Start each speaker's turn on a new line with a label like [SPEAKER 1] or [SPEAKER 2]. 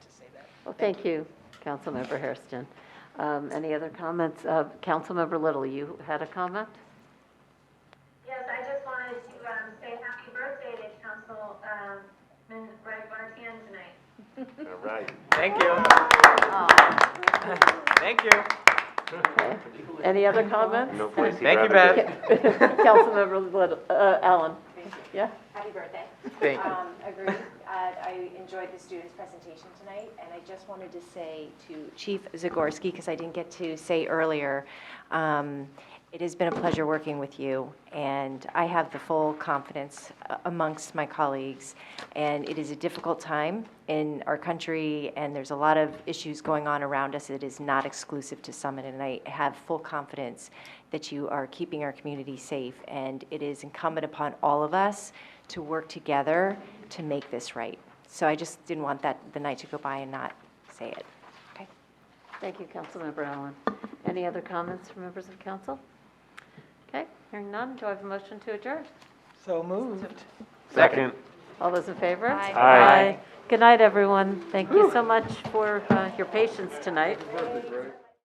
[SPEAKER 1] Thank you, Councilmember Hairston. Um, Any other comments? Uh, Councilmember Little, you had a comment?
[SPEAKER 2] Yes, I just wanted to um, say happy birthday to Councilman Greg Martin tonight.
[SPEAKER 3] All right.
[SPEAKER 4] Thank you. Thank you.
[SPEAKER 1] Okay. Any other comments?
[SPEAKER 3] No place he'd
[SPEAKER 4] Thank you,
[SPEAKER 3] rather be.
[SPEAKER 4] Beth.
[SPEAKER 1] Councilmember Little, uh, Allen?
[SPEAKER 5] Thank you.
[SPEAKER 1] Yeah?
[SPEAKER 5] Happy birthday.
[SPEAKER 4] Thank you.
[SPEAKER 5] Um, Agreed. Uh, I enjoyed the students' presentation tonight, and I just wanted to say to Chief Zagorski, because I didn't get to say earlier, um, it has been a pleasure working with you, and I have the full confidence uh, amongst my colleagues. And it is a difficult time in our country, and there's a lot of issues going on around us. It is not exclusive to Summit, and I have full confidence that you are keeping our community safe. And it is incumbent upon all of us to work together to make this right. So I just didn't want that, the night to go by and not say it. Okay?
[SPEAKER 1] Thank you, Councilmember Allen. Any other comments from members of council? Okay, hearing none, do I have a motion to adjourn?
[SPEAKER 4] So moved.
[SPEAKER 3] Second.
[SPEAKER 1] All those in favor?
[SPEAKER 5] Aye.
[SPEAKER 3] Aye.
[SPEAKER 1] Good night, everyone. Thank you so much for uh, your patience tonight.